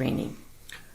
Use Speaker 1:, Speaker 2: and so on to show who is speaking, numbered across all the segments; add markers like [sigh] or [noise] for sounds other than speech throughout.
Speaker 1: training.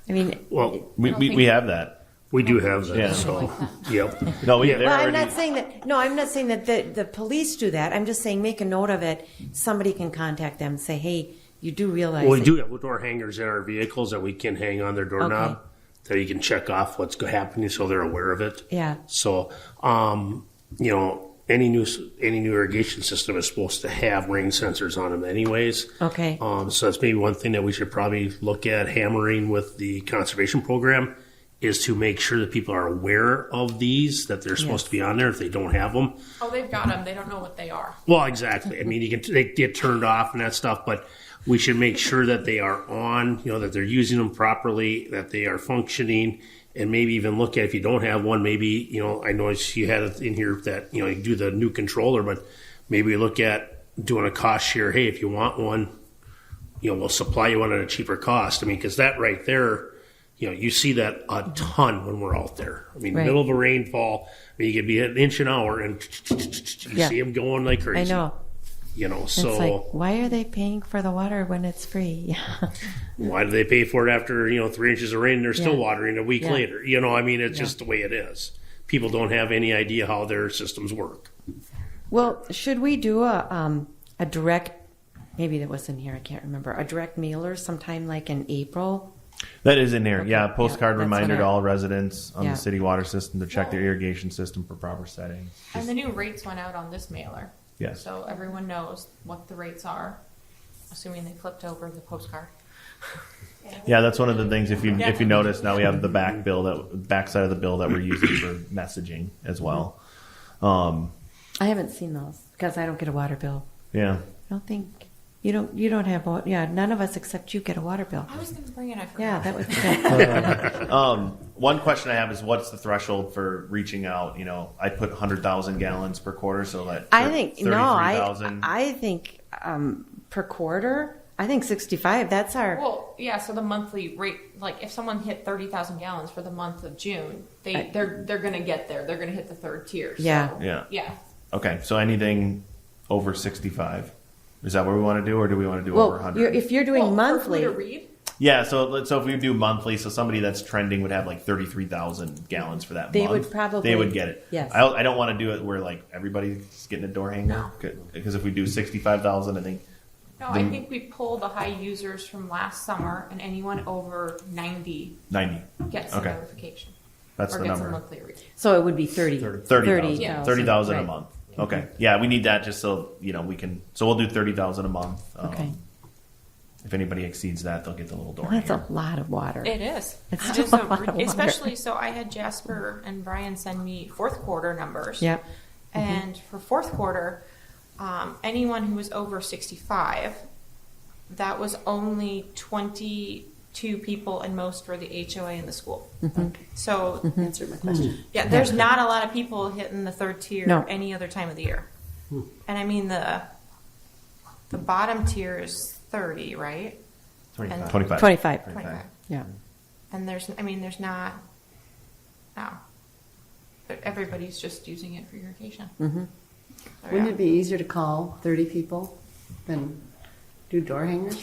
Speaker 1: I mean,
Speaker 2: Well,
Speaker 3: We,
Speaker 1: don't
Speaker 3: we,
Speaker 1: think-
Speaker 3: we have that.
Speaker 2: we do have
Speaker 3: Yeah.
Speaker 2: that, so, yep.
Speaker 3: [laughs] No, we,
Speaker 2: Yeah.
Speaker 3: they're
Speaker 1: well, I'm
Speaker 3: already,
Speaker 1: not saying that. No, I'm not saying that the, the police do that. I'm just saying make a note of it. Somebody can contact them and say, hey, you do realize.
Speaker 2: Well, we
Speaker 1: that-
Speaker 2: do have door hangers in our vehicles that we can hang on their doorknob that you can check off what's go- happening so they're aware of it.
Speaker 1: Yeah.
Speaker 2: So, um, you know, any new s- any new irrigation system is supposed to have rain sensors on them, anyways.
Speaker 1: Okay.
Speaker 2: Um, so that's maybe one thing that we should probably look at hammering with the conservation program is to make sure that people are aware of these that they're supposed to be on there if they don't have them.
Speaker 4: Oh, they've got them. They don't know what they are.
Speaker 2: Well, exactly. I mean, you can they get turned off and that stuff, but we should make sure that they are on. You know that they're using them properly, that they are functioning, and maybe even look at if you don't have one. Maybe you know I noticed you had it in here that you know you do the new controller, but maybe look at doing a cost share. Hey, if you want one, you know we'll supply you one at a cheaper cost. I mean, because that right there. You know, you see that a ton when we're out there. I mean,
Speaker 1: Right.
Speaker 2: middle of a rainfall, I mean, you could be an inch an hour, and you
Speaker 1: Yeah.
Speaker 2: see them going like crazy
Speaker 1: I know.
Speaker 2: you know
Speaker 1: It's
Speaker 2: so
Speaker 1: like, why are they paying for the water when it's free? [laughs] Yeah.
Speaker 2: why do they pay for it after you know three inches of rain and they're still
Speaker 1: Yeah.
Speaker 2: watering a week
Speaker 1: Yeah.
Speaker 2: later you know i mean it's just the way it is people don't have any idea how their systems work
Speaker 1: Well, should we do a um, a direct? Maybe that was in here. I can't remember. A direct mailer sometime like in April.
Speaker 3: that is in here. Yeah,
Speaker 1: Okay,
Speaker 3: postcard
Speaker 1: yeah, that's
Speaker 3: reminder
Speaker 1: what
Speaker 3: to
Speaker 1: I-
Speaker 3: all residents on
Speaker 1: Yeah.
Speaker 3: the city water system to check their irrigation system for proper settings.
Speaker 4: And the new rates went out on this mailer.
Speaker 3: Yes.
Speaker 4: So everyone knows what the rates are, assuming they flipped over the postcard.
Speaker 3: Yeah, that's one of the things. If you if you notice now, we have the back bill that backside of the bill that we're using for messaging as well. Um,
Speaker 1: I haven't seen those because I don't get a water bill.
Speaker 3: yeah,
Speaker 1: I don't think you don't. You don't have. wa- Yeah, none of us except you get a water bill.
Speaker 4: I was going to bring it. I forgot.
Speaker 1: Yeah, that was
Speaker 2: [laughs]
Speaker 1: good.
Speaker 3: one question I have is what's the threshold for reaching out? You know, I put hundred thousand gallons per quarter, so that
Speaker 1: I think no. I
Speaker 3: 33,000.
Speaker 1: I think um, per quarter. I think sixty-five. That's our.
Speaker 4: Well, yeah. So the monthly rate, like if someone hit thirty thousand gallons for the month of June, they
Speaker 1: I-
Speaker 4: they're they're going to get there. They're going to hit the third tier. so-
Speaker 1: Yeah.
Speaker 3: Yeah.
Speaker 4: Yeah.
Speaker 3: Okay, so anything over sixty-five, is that what we want to do, or do we want to do over
Speaker 1: well, you're,
Speaker 3: hundred?
Speaker 1: if you're doing
Speaker 4: Well, for who
Speaker 1: monthly,
Speaker 4: to read.
Speaker 3: yeah, so let's so if we do monthly, so somebody that's trending would have like thirty-three thousand gallons for that.
Speaker 1: They
Speaker 3: month.
Speaker 1: would probably-
Speaker 3: they would get it.
Speaker 1: yes.
Speaker 3: I, don't- I don't want to do it where like everybody's getting a door hanger because if we do sixty-five thousand, I think
Speaker 4: No, I think we pull the high users from last summer, and anyone over ninety
Speaker 3: ninety.
Speaker 4: gets a
Speaker 3: Okay.
Speaker 4: notification
Speaker 3: That's
Speaker 4: or
Speaker 3: the
Speaker 4: gets
Speaker 3: number.
Speaker 4: a monthly read.
Speaker 1: so it would be thirty.
Speaker 3: 30,000
Speaker 4: Yeah.
Speaker 3: 30,000 a
Speaker 1: right.
Speaker 3: month. Okay. Yeah, we need that just so, you know, we can, so we'll do 30,000 a month. Um,
Speaker 1: Okay.
Speaker 3: If anybody exceeds that, they'll get the little door.
Speaker 1: That's
Speaker 3: hanger.
Speaker 1: a lot of water.
Speaker 4: It is.
Speaker 1: It's
Speaker 4: It
Speaker 1: still [laughs]
Speaker 4: is
Speaker 1: a lot of
Speaker 4: a,
Speaker 1: water.
Speaker 4: especially so. I had Jasper and Brian send me fourth quarter numbers.
Speaker 1: Yep. Mm-hmm.
Speaker 4: And for fourth quarter, um, anyone who was over sixty-five, that was only twenty-two people, and most were the HOA in the school.
Speaker 1: Mm-hmm.
Speaker 4: So answer my question. Yeah, there's not a lot of people hitting the third tier
Speaker 1: No.
Speaker 4: any other time of the year, and I mean the the bottom tier is thirty, right?
Speaker 3: 25.
Speaker 4: 25.
Speaker 1: 25.
Speaker 4: Twenty-five.
Speaker 1: Yeah.
Speaker 4: And there's, I mean, there's not, no. But everybody's just using it for irrigation. Mm-hmm.
Speaker 5: Wouldn't it be easier to call 30 people than do door hangers?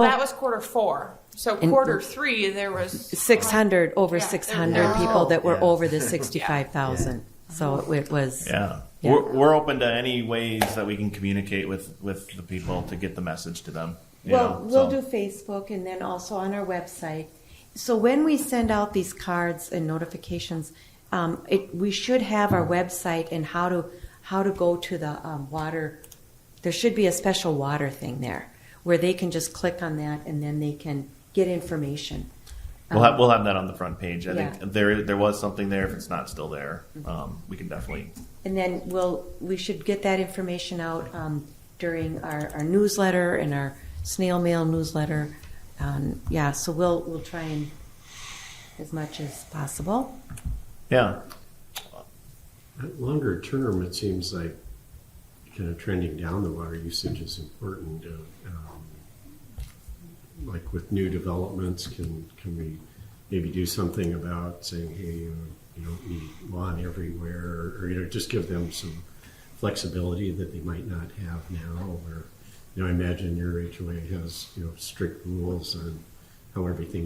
Speaker 1: No.
Speaker 4: that was quarter four. So
Speaker 1: And-
Speaker 4: quarter three, there was.
Speaker 1: 600 over
Speaker 4: Yeah, there-
Speaker 1: 600
Speaker 4: there-
Speaker 1: people that were
Speaker 3: Yeah.
Speaker 1: over the 65,000. So it, it was
Speaker 3: Yeah.
Speaker 1: Yeah.
Speaker 3: We're, we're open to any ways that we can communicate with, with the people to get the message to them. you
Speaker 1: Well,
Speaker 3: know,
Speaker 1: we'll
Speaker 3: so.
Speaker 1: do Facebook and then also on our website. So when we send out these cards and notifications, um, it, we should have our website and how to how to go to the um, water. There should be a special water thing there where they can just click on that and then they can get information.
Speaker 3: We'll have, we'll have that on the front page. I
Speaker 1: Um, Yeah.
Speaker 3: think there, there was something there. If it's not still there, um, we can definitely,
Speaker 1: And then we'll, we should get that information out um, during our, our newsletter and our snail mail newsletter. Um, yeah, so we'll, we'll try and, as much as possible.
Speaker 3: yeah.
Speaker 6: Longer term, it seems like kind of trending down the water usage is important. uh, um, Like with new developments, can, can we maybe do something about saying, hey, uh, you don't need lawn everywhere? Or, you know, just give them some flexibility that they might not have now. Or, you know, I imagine your HOA has, you know, strict rules on how everything